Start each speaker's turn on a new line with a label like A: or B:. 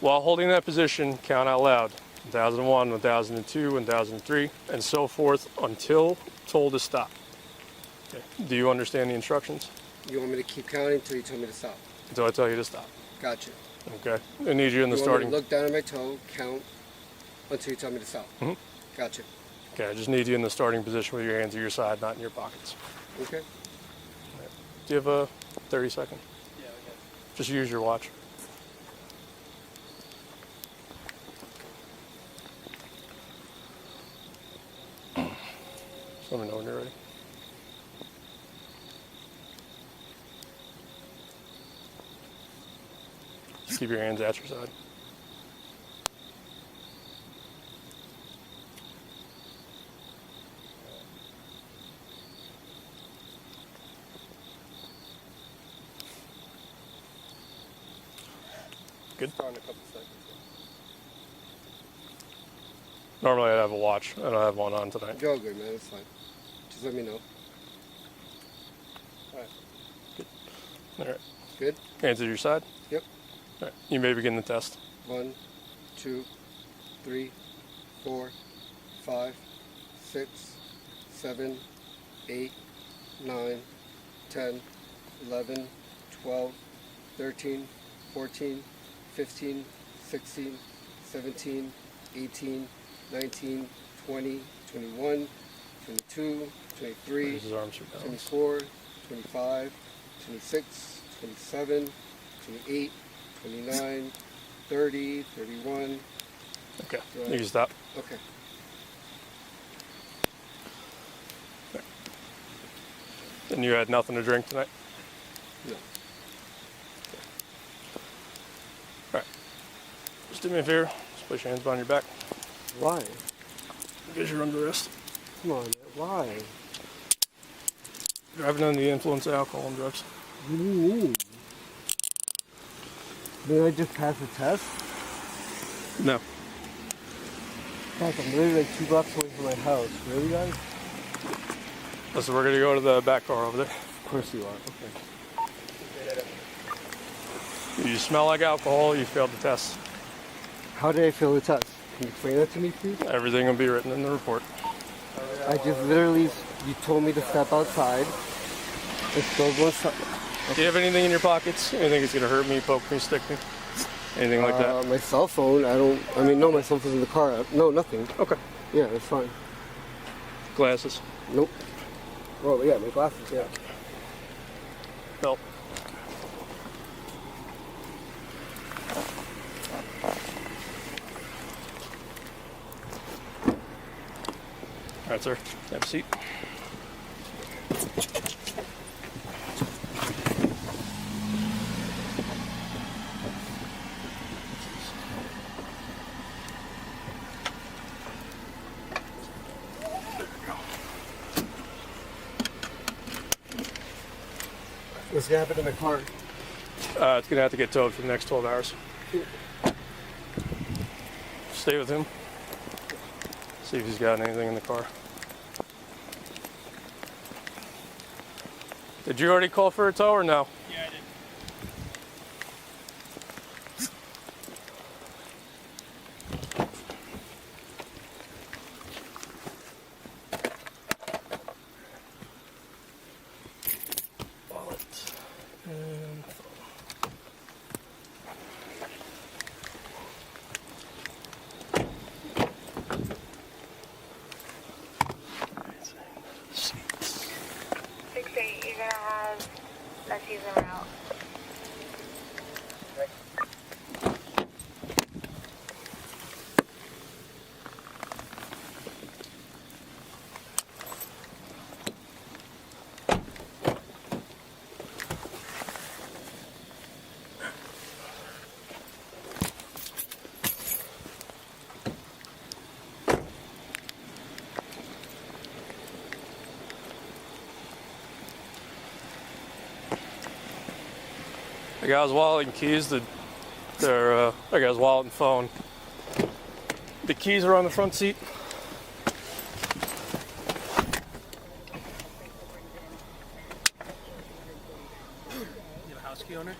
A: While holding that position, count out loud 1001, 1002, 1003, and so forth until told to stop. Okay. Do you understand the instructions?
B: You want me to keep counting until you tell me to stop?
A: Until I tell you to stop.
B: Gotcha.
A: Okay. I need you in the
B: you
A: starting.
B: Want me to look down at my toe, count until you tell me to stop.
A: Mhm.
B: Gotcha.
A: Okay, I just need you in the starting position with your hands at your side, not in your pockets.
B: Okay.
A: Do you have a 30 second? Just use your watch. Just let me know when you're ready. Just keep your hands at your side. Good.
B: Start in a couple seconds.
A: Normally I'd have a watch. I don't have one on tonight.
B: You're all good, man. It's fine. Just let me know. All right.
A: All right.
B: Good.
A: Hands at your side.
B: Yep.
A: All right. You may begin the test.
B: One, two, three, four, five, six, seven, eight, nine, ten, eleven, twelve, thirteen, fourteen, fifteen, sixteen, seventeen, eighteen, nineteen, twenty, twenty-one, twenty-two, twenty-three,
A: Raise his arms for balance.
B: 24, 25, 26, 27, 28, 29, 30, 31.
A: Okay. You can stop.
B: Okay.
A: And you had nothing to drink tonight?
B: No.
A: All right. Just do me a favor. Just place your hands behind your back.
C: Why?
A: Because you're under arrest.
C: Come on, man, why?
A: Driving under the influence of alcohol and drugs.
C: What do you mean? Did I just pass the test?
A: No.
C: Guys, I'm literally like two blocks away from my house. Really, guys?
A: So we're going to go to the back car over there.
C: Of course you are. Okay.
A: You smell like alcohol. You failed the test.
C: How did I fail the test? Can you explain that to me, please?
A: Everything will be written in the report.
C: I just literally, you told me to step outside. I still go inside.
A: Do you have anything in your pockets? Anything that's going to hurt me, poke me, stick me? Anything like
C: Uh, my cell phone, I don't, I mean, no, my cell phone's in the car. I- No, nothing.
A: that? Okay.
C: Yeah, it's fine.
A: Glasses.
C: Nope. Well, yeah, my glasses, yeah.
A: Belt. All right, sir. Have a seat.
C: What's gonna happen to my car?
A: Uh, it's gonna have to get towed for the next 12 hours. Stay with him. See if he's got anything in the car. Did you already call for a tow or no?
D: Yeah, I did.
A: Wallet. And phone.
E: 6-8, you're gonna have a season route.
A: I got his wallet and keys. The, their, uh, I got his wallet and phone. The keys are on the front seat.
D: You have a house key owner?